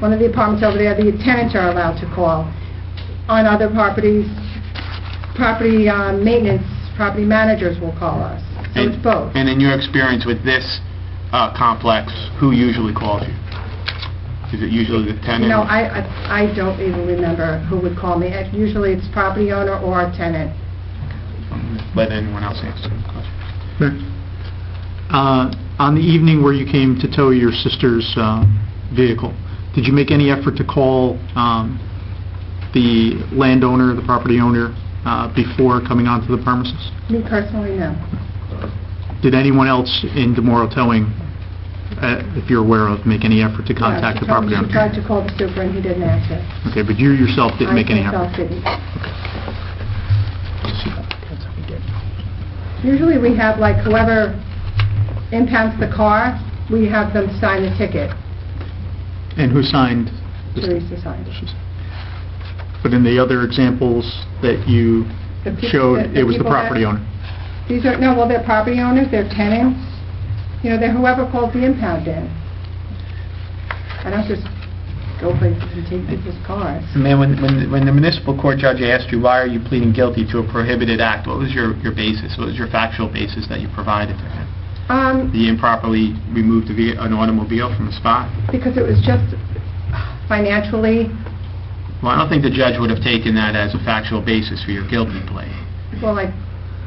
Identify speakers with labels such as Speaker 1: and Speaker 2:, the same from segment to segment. Speaker 1: one of the apartments over there, the tenants are allowed to call. On other properties, property uh, maintenance, property managers will call us. So it's
Speaker 2: And-
Speaker 1: both.
Speaker 2: And in your experience with this uh, complex, who usually calls you? Is it usually the tenant?
Speaker 1: You know, I, I I don't even remember who would call me. Uh, Usually it's property owner or a tenant.
Speaker 2: Let anyone else answer the question.
Speaker 3: Uh, On the evening where you came to tow your sister's uh, vehicle, did you make any effort to call um, the landowner, the property owner, uh, before coming onto the premises?
Speaker 1: Me personally, no.
Speaker 3: Did anyone else in DeMorro Towing, uh, if you're aware of, make any effort to contact the property
Speaker 1: She tried
Speaker 3: owner?
Speaker 1: to call the super and he didn't answer.
Speaker 3: Okay, but you yourself didn't make any
Speaker 1: I
Speaker 3: effort?
Speaker 1: myself didn't. Usually we have like whoever impounds the car, we have them sign the ticket.
Speaker 3: And who signed? this?
Speaker 1: Teresa signed. it.
Speaker 3: But in the other examples that you
Speaker 1: The peop-
Speaker 3: showed, it was the
Speaker 1: people that-
Speaker 3: property owner?
Speaker 1: These are, no, well, they're property owners, they're tenants, you know, they're whoever called the impound in. I don't just go places and take people's cars.
Speaker 2: Ma'am, when- when when the municipal court judge asked you, why are you pleading guilty to a prohibited act, what was your your basis? What was your factual basis that you provided to him?
Speaker 1: Um,
Speaker 2: The improperly removed a ve- an automobile from the spot?
Speaker 1: because it was just financially,
Speaker 2: Well, I don't think the judge would have taken that as a factual basis for your guilty plea.
Speaker 1: well, I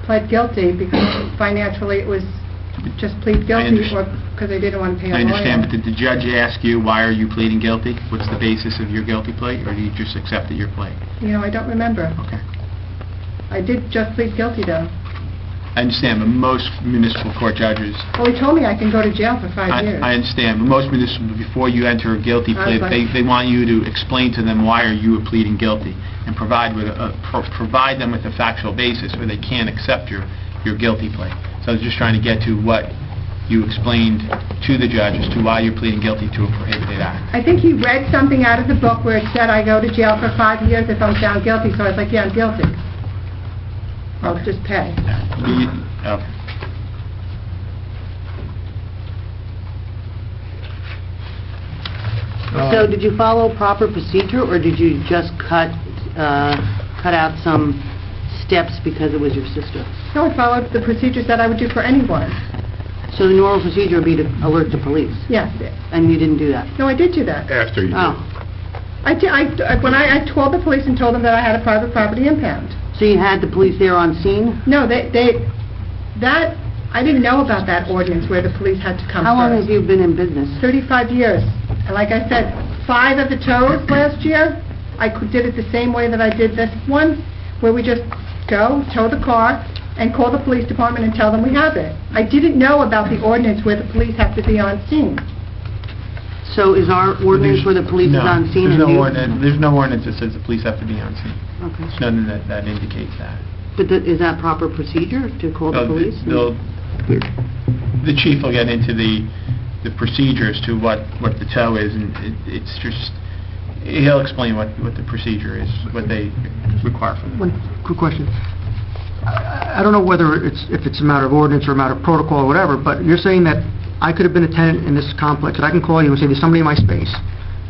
Speaker 1: pled guilty because financially it was just plead guilty
Speaker 2: underst-
Speaker 1: or because I didn't want to pay a lawyer.
Speaker 2: I understand, but did the judge ask you, why are you pleading guilty? What's the basis of your guilty plea, or do you just accept that you're pleading?
Speaker 1: You know, I don't remember.
Speaker 2: Okay.
Speaker 1: I did just plead guilty though.
Speaker 2: I understand, but most municipal court judges,
Speaker 1: Well, he told me I can go to jail for five
Speaker 2: I
Speaker 1: years.
Speaker 2: I understand, but most municipal, before you enter a guilty
Speaker 1: I
Speaker 2: plea,
Speaker 1: was like-
Speaker 2: they they want you to explain to them why are you pleading guilty, and provide with, a- pro- provide them with a factual basis, where they can't accept your your guilty plea. So I was just trying to get to what you explained to the judge as to why you're pleading guilty to a prohibited act.
Speaker 1: I think he read something out of the book where it said, "I go to jail for five years if I'm found guilty," so I was like, "Yeah, I'm guilty. I'll just pay."
Speaker 2: Do you- okay.
Speaker 4: So did you follow proper procedure, or did you just cut, uh, cut out some steps because it was your sister?
Speaker 1: No, I followed the procedures that I would do for anyone.
Speaker 4: So the normal procedure would be to alert the police,
Speaker 1: Yes,
Speaker 4: and you didn't do that?
Speaker 1: no, I did do that.
Speaker 5: After you do.
Speaker 4: Oh,
Speaker 1: I did, I, when I, I called the police and told them that I had a private property impound.
Speaker 4: so you had the police there on scene?
Speaker 1: No, they, they, that, I didn't know about that ordinance where the police had to come first.
Speaker 4: How long have you been in business?
Speaker 1: 35 years. And like I said, five of the toes last year, I cou- did it the same way that I did this one, where we just go, tow the car, and call the police department and tell them we have it. I didn't know about the ordinance where the police have to be on scene.
Speaker 4: So is our ordinance where the police is
Speaker 2: No,
Speaker 4: on scene?
Speaker 2: There's
Speaker 4: and
Speaker 2: no
Speaker 4: you-
Speaker 2: ordinance, there's no ordinance that says the police have to be on scene.
Speaker 4: Okay.
Speaker 2: There's nothing that, that indicates that.
Speaker 4: But th- is that proper procedure, to call
Speaker 2: Uh,
Speaker 4: the police?
Speaker 2: they'll- The chief will get into the, the procedures to what, what the tow is, and it, it's just, he'll explain what, what the procedure is, what they require from them.
Speaker 6: One quick question. I I don't know whether it's, if it's a matter of ordinance or a matter of protocol or whatever, but you're saying that I could have been a tenant in this complex, and I can call you and say, "There's somebody in my space,"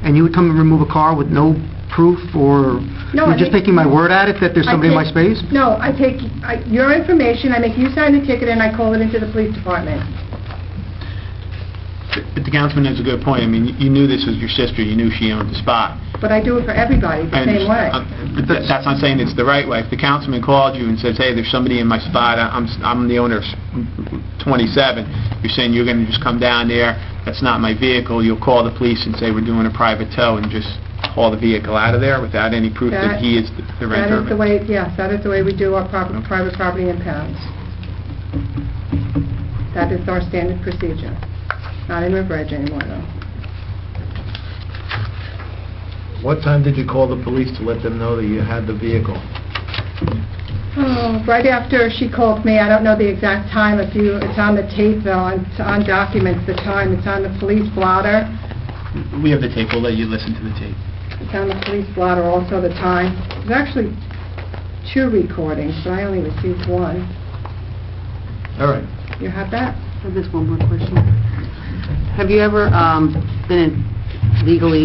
Speaker 6: and you would come and remove a car with no proof, or
Speaker 1: No, I
Speaker 6: you're just
Speaker 1: think-
Speaker 6: taking my word at it that there's
Speaker 1: I
Speaker 6: somebody in my
Speaker 1: take-
Speaker 6: space?
Speaker 1: No, I take I- your information, I make you sign the ticket, and I call it into the police department.
Speaker 2: But the councilman has a good point, I mean, you knew this was your sister, you knew she owned the spot.
Speaker 1: But I do it for everybody the
Speaker 2: I
Speaker 1: same way.
Speaker 2: understand. Uh, But that- that's not saying it's the right way. If the councilman called you and says, hey, there's somebody in my spot, I- I'm, s- I'm the owner of s- 27, you're saying you're going to just come down there, that's not my vehicle, you'll call the police and say, we're doing a private tow, and just haul the vehicle out of there without any proof that
Speaker 1: That-
Speaker 2: he is the- the
Speaker 1: That
Speaker 2: renter
Speaker 1: is
Speaker 2: of
Speaker 1: the
Speaker 2: it?
Speaker 1: way, yes, that is the way we do our prop- private property impounds. That is our standard procedure. Not in River Edge anymore, though.
Speaker 7: What time did you call the police to let them know that you had the vehicle?
Speaker 1: Oh, Right after she called me, I don't know the exact time, if you, it's on the tape, though, and it's on documents, the time, it's on the police blotter,
Speaker 2: We have the tape, we'll let you listen to the tape.
Speaker 1: it's on the police blotter also, the time. There's actually two recordings, but I only received one.
Speaker 7: All right.
Speaker 1: You have that?
Speaker 4: I have this one more question. Have you ever um, been legally